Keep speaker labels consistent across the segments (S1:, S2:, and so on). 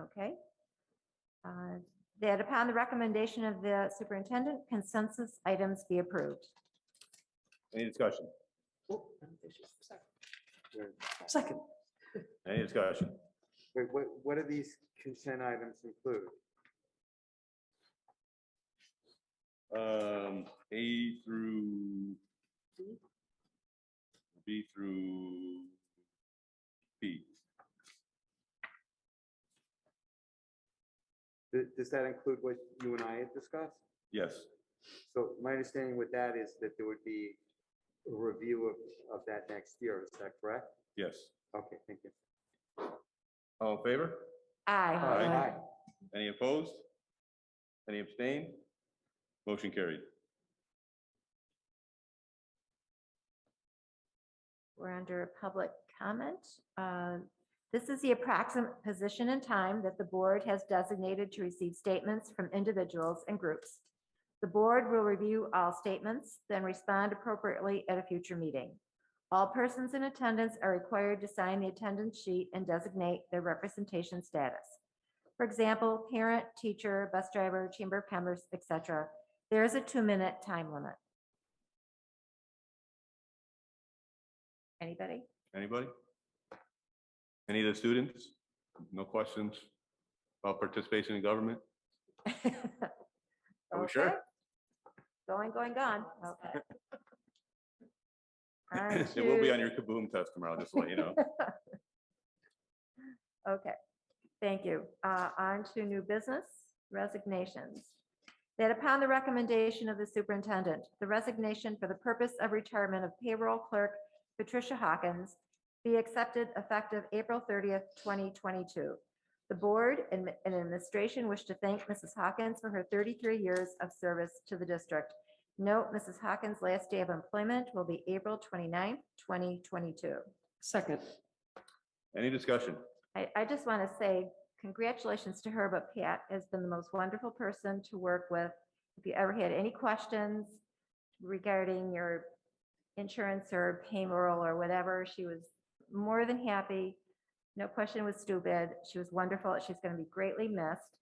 S1: Okay. Uh, That upon the recommendation of the superintendent, consensus items be approved.
S2: Any discussion?
S3: Oh, Second.
S2: Any discussion?
S4: Wait, what, what do these consent items include?
S2: Um, A through B through B.
S4: Th- Does that include what you and I had discussed?
S2: Yes,
S4: So my understanding with that is that there would be a review of, of that next year, is that correct?
S2: yes.
S4: Okay, thank you.
S2: All in favor?
S1: Aye.
S2: Aye. Any opposed? Any abstained? Motion carried.
S1: We're under public comment. Uh, This is the approximate position and time that the board has designated to receive statements from individuals and groups. The board will review all statements, then respond appropriately at a future meeting. All persons in attendance are required to sign the attendance sheet and designate their representation status. For example, parent, teacher, bus driver, chamber of commerce, etc. There is a two-minute time limit. Anybody?
S2: Anybody? Any of the students? No questions about participation in government? Are we sure?
S1: Okay. Going, going, gone. Okay. On
S2: It will be
S1: to-
S2: on your kaboom test tomorrow, just to let you know.
S1: Okay, thank you. Uh, On to new business resignations. That upon the recommendation of the superintendent, the resignation for the purpose of retirement of payroll clerk Patricia Hawkins be accepted effective April 30th, 2022. The board and and administration wish to thank Mrs. Hawkins for her 33 years of service to the district. Note, Mrs. Hawkins' last day of employment will be April 29th, 2022.
S3: Second.
S2: Any discussion?
S1: I, I just want to say congratulations to her, but Pat has been the most wonderful person to work with. If you ever had any questions regarding your insurance or payroll or whatever, she was more than happy. No question was stupid. She was wonderful. She's going to be greatly missed.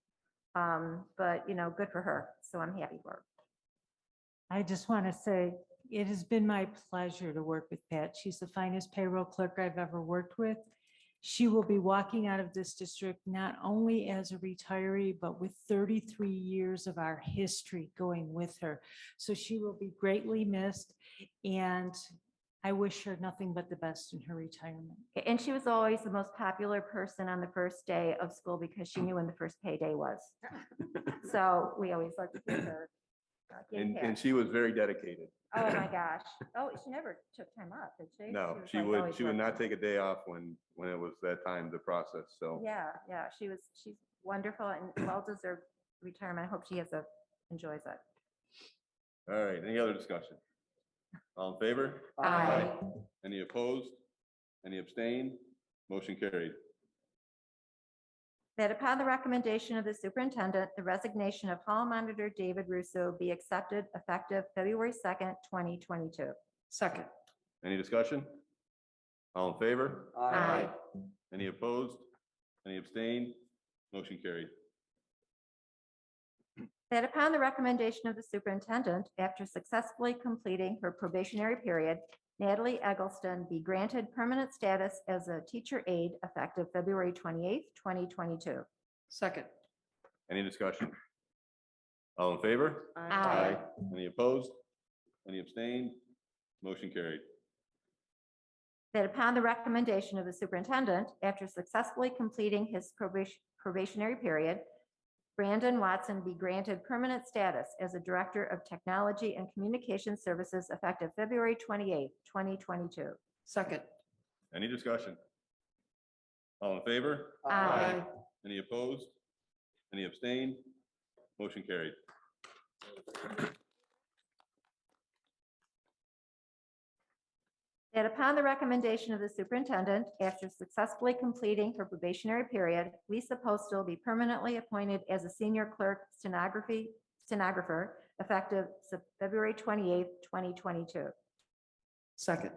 S1: Um, But, you know, good for her. So I'm happy for her.
S5: I just want to say, it has been my pleasure to work with Pat. She's the finest payroll clerk I've ever worked with. She will be walking out of this district not only as a retiree, but with 33 years of our history going with her. So she will be greatly missed, and I wish her nothing but the best in her retirement.
S1: And she was always the most popular person on the first day of school because she knew when the first payday was. So we always like to give her. uh, give
S2: And,
S1: Pat.
S2: and she was very dedicated.
S1: Oh, my gosh. Oh, she never took time off, did she?
S2: No,
S1: was,
S2: she
S1: like,
S2: would,
S1: always
S2: she would not
S1: working.
S2: take a day off when, when it was that time to process, so.
S1: Yeah, yeah, she was, she's wonderful and well-deserved retirement. I hope she has a, enjoys it.
S2: All right, any other discussion? All in favor?
S1: Aye.
S2: Any opposed? Any abstained? Motion carried.
S1: That upon the recommendation of the superintendent, the resignation of hall monitor David Russo be accepted effective February 2nd, 2022.
S3: Second.
S2: Any discussion? All in favor?
S1: Aye.
S2: Any opposed? Any abstained? Motion carried.
S1: That upon the recommendation of the superintendent, after successfully completing her probationary period, Natalie Eggleston be granted permanent status as a teacher aide effective February 28th, 2022.
S3: Second.
S2: Any discussion? All in favor?
S1: Aye.
S2: Any opposed? Any abstained? Motion carried.
S1: That upon the recommendation of the superintendent, after successfully completing his probation- probationary period, Brandon Watson be granted permanent status as a Director of Technology and Communication Services effective February 28th, 2022.
S3: Second.
S2: Any discussion? All in favor?
S1: Aye.
S2: Any opposed? Any abstained? Motion carried.
S1: That upon the recommendation of the superintendent, after successfully completing her probationary period, Lisa Postal be permanently appointed as a senior clerk stenography, stenographer effective Sep- February 28th, 2022.
S3: Second.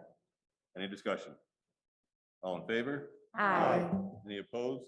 S2: Any discussion? All in favor?
S1: Aye.
S2: Any opposed?